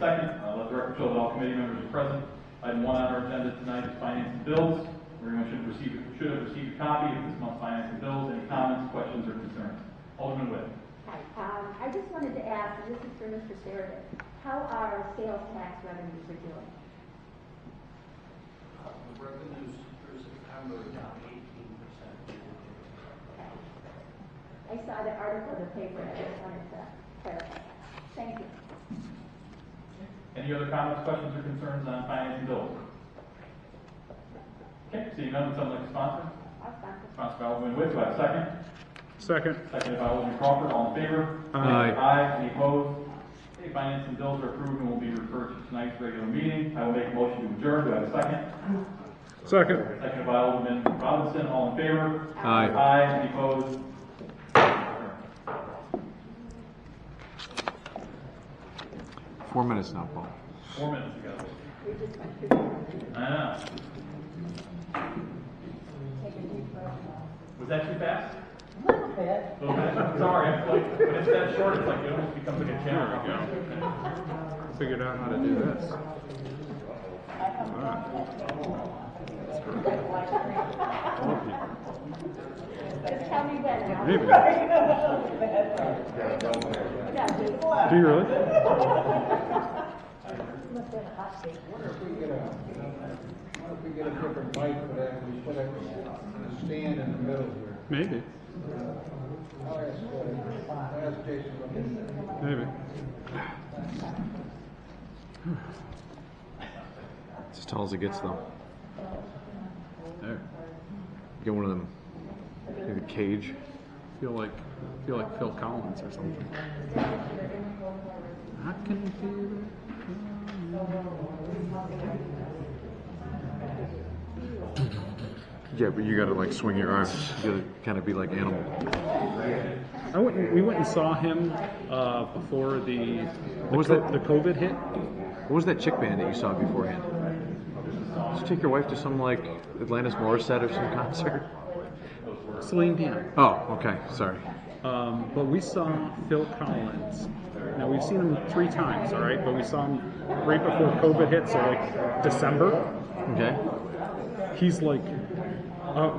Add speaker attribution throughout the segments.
Speaker 1: Second, uh, let the record show that all committee members are present. Item one on our agenda tonight is finance and bills. Everyone should receive, should have received a copy of this month's finance and bills. Any comments, questions, or concerns? Alderman Witt.
Speaker 2: Hi, um, I just wanted to ask, and this is for Mr. Sheridan, how our sales tax revenues are doing?
Speaker 3: Uh, The revenues through September are down eighteen percent.
Speaker 2: I saw the article in the paper, I just wanted to clarify. Thank you.
Speaker 1: Any other comments, questions, or concerns on finance and bills? Okay, seeing none, would someone like to sponsor?
Speaker 2: I'll stop.
Speaker 1: Sponsored by Alderman Witt, do I have a second?
Speaker 4: Second.
Speaker 1: Seconded by Alderman Crawford, all in favor?
Speaker 4: Aye.
Speaker 1: Aye, any opposed? Okay, finance and bills are approved and will be referred to tonight's regular meeting. I will make a motion to adjourn, do I have a second?
Speaker 4: Second.
Speaker 1: Seconded by Alderman Robinson, all in favor?
Speaker 4: Aye.
Speaker 1: Aye, any opposed?
Speaker 4: Four minutes now, Paul.
Speaker 1: Four minutes ago. Ah.
Speaker 2: We just went through, that.
Speaker 1: I know.
Speaker 2: take a deep breath.
Speaker 1: Was that too fast?
Speaker 5: Little bit.
Speaker 1: A little bit? Sorry, I feel like, when it's that short, it's like it almost becomes like a camera.
Speaker 4: Figured out how to do this.
Speaker 2: Just tell me when. and I'll-
Speaker 4: Maybe.
Speaker 2: Yeah, just-
Speaker 4: Do you really?
Speaker 6: What if we get a different mic for that, we put a a stand in the middle here?
Speaker 4: Maybe.
Speaker 6: I'll ask, uh, I'll ask Jason about that.
Speaker 4: Maybe. It's as tall as it gets, though. There. Get one of them. Maybe cage. Feel like, feel like Phil Collins or something. I can feel it. Yeah, but you gotta like swing your arms. You gotta kind of be like animal.
Speaker 7: I went. and- We went and saw him uh, before the
Speaker 4: What was
Speaker 7: the,
Speaker 4: that?
Speaker 7: the COVID hit.
Speaker 4: What was that chick band that you saw beforehand? Did you take your wife to some like Atlantis Morissette or some concert?
Speaker 7: Celine Dion.
Speaker 4: Oh, okay, sorry.
Speaker 7: Um, but we saw Phil Collins. Now we've seen him three times, all right. But we saw him right before COVID hit, so like December.
Speaker 4: Okay.
Speaker 7: He's like, uh,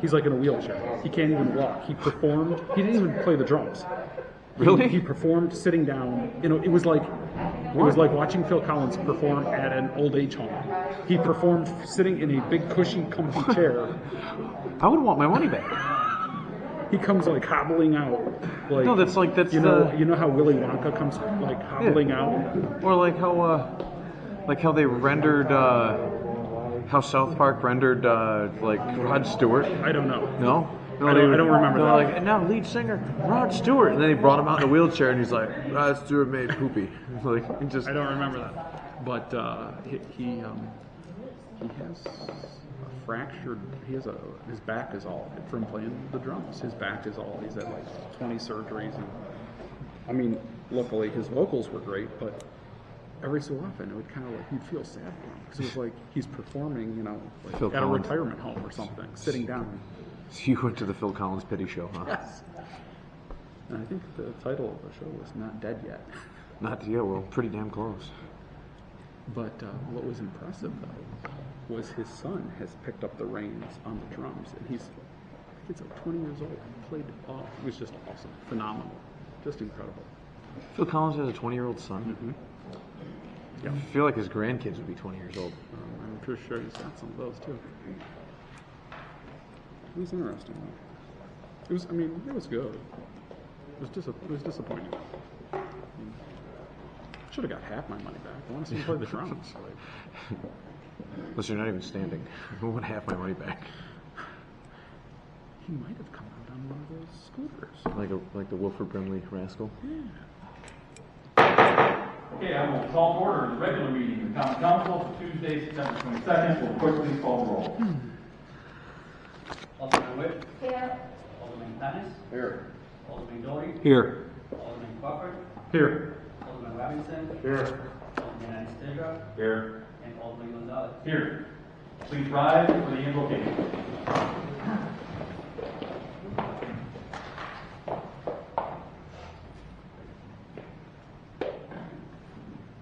Speaker 7: he's like in a wheelchair. He can't even walk. He performed. He didn't even play the drums. He-
Speaker 4: Really?
Speaker 7: He performed sitting down. You know, it was like it was like watching Phil Collins perform at an old age home. He performed sitting in a big cushy, comfy chair.
Speaker 4: I would want my money back.
Speaker 7: He comes like hobbling out. Like
Speaker 4: No, that's like- that's
Speaker 7: you know
Speaker 4: the-
Speaker 7: you know how Willy Wonka comes like hobbling out.
Speaker 4: Or like how uh like how they rendered uh how South Park rendered uh like Rod Stewart.
Speaker 7: I don't know.
Speaker 4: No? No,
Speaker 7: I don't-
Speaker 4: they
Speaker 7: I don't remember
Speaker 4: they were
Speaker 7: that.
Speaker 4: Like, and now lead singer Rod Stewart, and then they brought him out in a wheelchair, and he's like, Rod Stewart made poopy. Like, he just
Speaker 7: I don't remember that. But uh, he he, um, he has a fractured. He has a his back is all from playing the drums. His back is all. He's had like 20 surgeries. And, I mean, luckily his vocals were great, but every so often it would kind of like you'd feel sad for him because it was like he's performing, you know, like
Speaker 4: Phil
Speaker 7: at a
Speaker 4: Collins.
Speaker 7: retirement home or something, sitting down.
Speaker 4: So you went to the Phil Collins pity show, huh?
Speaker 7: And I think the title of the show was "Not Dead Yet."
Speaker 4: Not yeah, well, pretty damn close.
Speaker 7: But uh, what was impressive though was his son has picked up the reins on the drums, and he's he's like 20 years old. Played off. It was just awesome, phenomenal, just incredible.
Speaker 4: Phil Collins has a 20 year old son.
Speaker 7: Yeah.
Speaker 4: I feel like his grandkids would be 20 years old.
Speaker 7: Um, I'm pretty sure he's got some of those too. It was interesting. Though. It was. I mean, it was good. It was dis- It was disappointing. Should have got half my money back. I want to see him play the drums. Like,
Speaker 4: Unless you're not even standing. I want half my money back.
Speaker 7: he might have come out on one of those scooters.
Speaker 4: Like a, like the Wilford Brimley rascal.
Speaker 1: Okay, I will call to order the regular meeting of the common council for Tuesday, September twenty-second. We'll quickly call the roll.
Speaker 3: Alderman Witt,
Speaker 2: Here,
Speaker 3: Alderman Dennis. Here. Alderman Dory,
Speaker 4: Here.
Speaker 3: Alderman Crawford,
Speaker 4: Here.
Speaker 3: Alderman Robinson.
Speaker 4: Here.
Speaker 3: Alderman Anastasia,
Speaker 4: Here.
Speaker 3: and Alderman Gonzalez.
Speaker 1: Here, please rise for the invocation.